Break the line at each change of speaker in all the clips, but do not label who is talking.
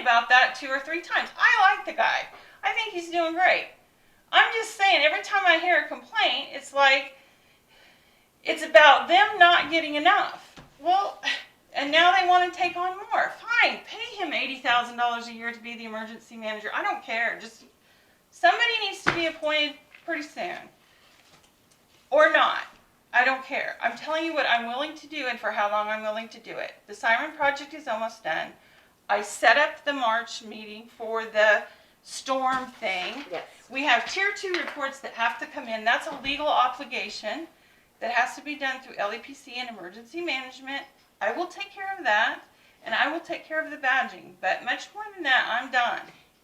about that two or three times. I like the guy. I think he's doing great. I'm just saying, every time I hear a complaint, it's like, it's about them not getting enough. Well, and now they want to take on more. Fine, pay him $80,000 a year to be the emergency manager. I don't care. Just somebody needs to be appointed pretty soon. Or not. I don't care. I'm telling you what I'm willing to do and for how long I'm willing to do it. The Siren Project is almost done. I set up the March meeting for the storm thing.
Yes.
We have tier two reports that have to come in. That's a legal obligation that has to be done through LEPC and emergency management. I will take care of that and I will take care of the badging, but much more than that, I'm done.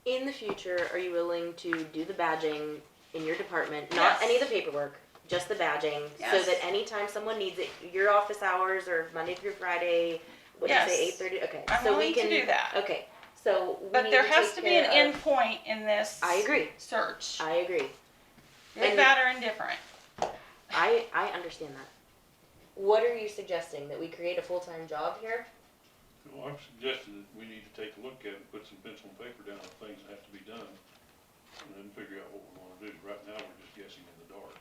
In the future, are you willing to do the badging in your department? Not
Yes.
any of the paperwork, just the badging, so
Yes.
that anytime someone needs it, your office hours or Monday through Friday, what do you say, eight
Yes.
thirty? Okay,
I'm
so we
willing to
can
do that.
Okay, so we
But
need
there
to
has
take
to be an
care
end
of-
point in this
I agree.
search.
I agree.
Good,
and-
bad, or indifferent.
I I understand that. What are you suggesting that we create a full time job here?
Well, I'm suggesting that we need to take a look at it, put some pencil and paper down on things that have to be done, and then figure out what we wanna do. Right now, we're just guessing in the dark.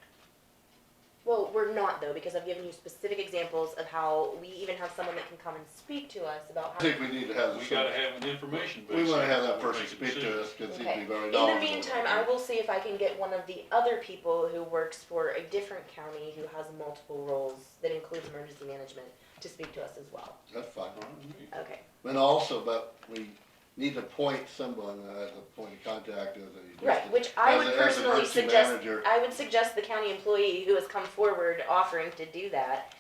Well, we're not though, because I've given you specific examples of how we even have someone that can come and speak to us about
I
how.
think we need to have.
We
some-
gotta have an information base.
We wanna have that
before we
person
make a
speak to
decision.
us, cause he'd
Okay.
be very
In
knowledgeable.
the meantime, I will see if I can get one of the other people who works for a different county who has multiple roles that includes emergency management to speak to us as well.
That's fine.
All right, I mean,
Okay.
And also, but we need to point someone uh, as a point of contact as a.
Right, which I
as
would
a- as a
personally
emergency
suggest,
manager.
I would suggest the county employee who has come forward offering to do that.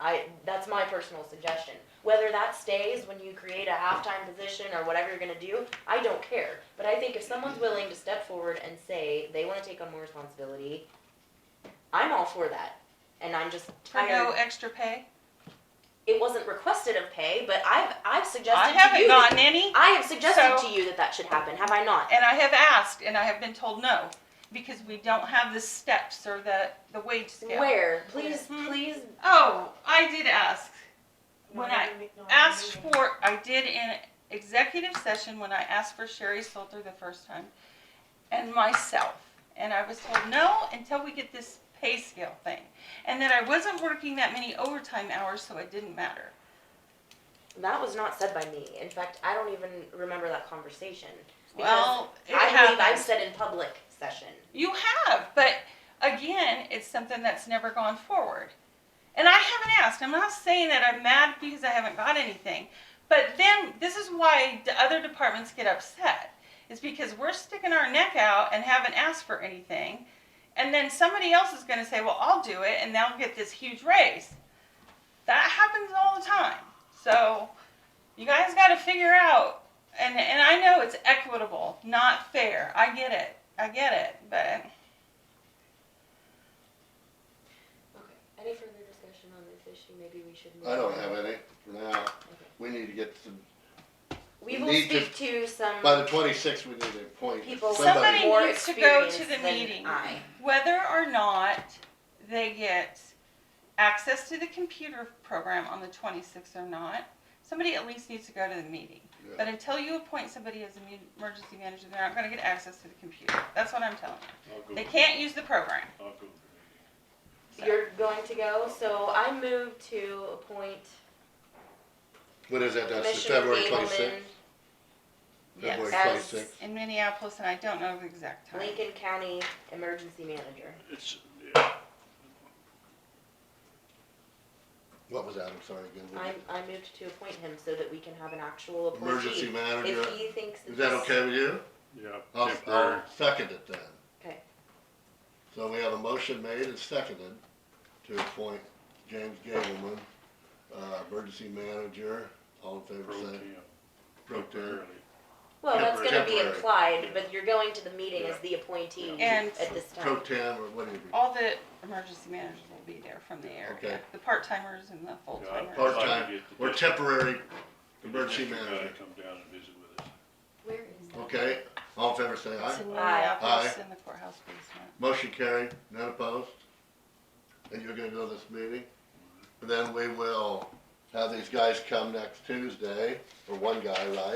I, that's my personal suggestion. Whether that stays when you create a halftime position or whatever you're gonna do, I don't care. But I think if someone's willing to step forward and say they wanna take on more responsibility, I'm all for that. And I'm just
For no
tired.
extra pay.
It wasn't requested of pay, but I've, I've
I
suggested to
haven't
you. that-
gotten any,
I have
So-
suggested to you that that should happen, have I not?
and I have asked, and I have been told no, because we don't have the steps or the, the wage scale.
Where, please,
Mhm.
please
Oh, I did ask. When I asked for, I did in executive session when I asked for Sherry Salter the first time and myself. And I was told no until we get this pay scale thing. And that I wasn't working that many overtime hours, so it didn't matter.
That was not said by me. In fact, I don't even remember that conversation. Because
Well, it
I believe I've
happens.
said in public session.
You have, but again, it's something that's never gone forward. And I haven't asked. I'm not saying that I'm mad because I haven't got anything. But then this is why the other departments get upset. It's because we're sticking our neck out and haven't asked for anything. And then somebody else is going to say, well, I'll do it, and they'll get this huge raise. That happens all the time. So you guys got to figure out. And, and I know it's equitable, not fair. I get it. I get it. But
Okay. Any further discussion on this issue? Maybe we should.
I don't have any for now. We need to get some,
We
We
will
need to-
speak to, some
by the twenty-sixth, we need to appoint
people
Somebody
somebody.
more
needs to go to
experienced
the
than
meeting.
I.
whether or not they get access to the computer program on the 26th or not, somebody at least needs to go to the meeting.
Yeah.
But until you appoint somebody as an emergency manager, they're not going to get access to the computer. That's what I'm telling you.
I'll go
They
to-
can't use the program.
I'll go to the meeting.
So-
You're going to go, so I move to appoint
What is that, that's the
Commissioner
February
Gableman
twenty-sixth? February
Yes,
as
26th.
in Minneapolis, and I don't know the exact time.
Lincoln County Emergency Manager.
It's, yeah,
What was that, I'm sorry, again? what
I,
was it?
I moved to appoint him so that we can have an actual
Emergency
appointee.
manager,
If he thinks that
is that
this-
okay with you?
yeah,
I'll,
temporary.
I'll second it then.
Okay.
So we have a motion made and seconded to appoint James Gableman, uh, emergency manager, all in favor,
Pro
say.
temp,
Pro temp.
temporarily.
Well, that's gonna be
Temporary.
implied, but you're going to the meeting as
Yeah.
the appointee
Yeah. And-
at this
Pro
time.
temp or whatever.
All the emergency managers will be there from the area,
Okay.
the part-timers and the
Yeah,
full-timers.
part-
Part-time or temporary emergency
District guy
manager.
Come down and visit with us.
Where is that?
Okay, all in favor, say
It's
aye.
in
Aye.
Minneapolis in the courthouse basement.
Motion carried, none opposed. And you're gonna go to this meeting? And then we will have these guys come next Tuesday, or one guy, right?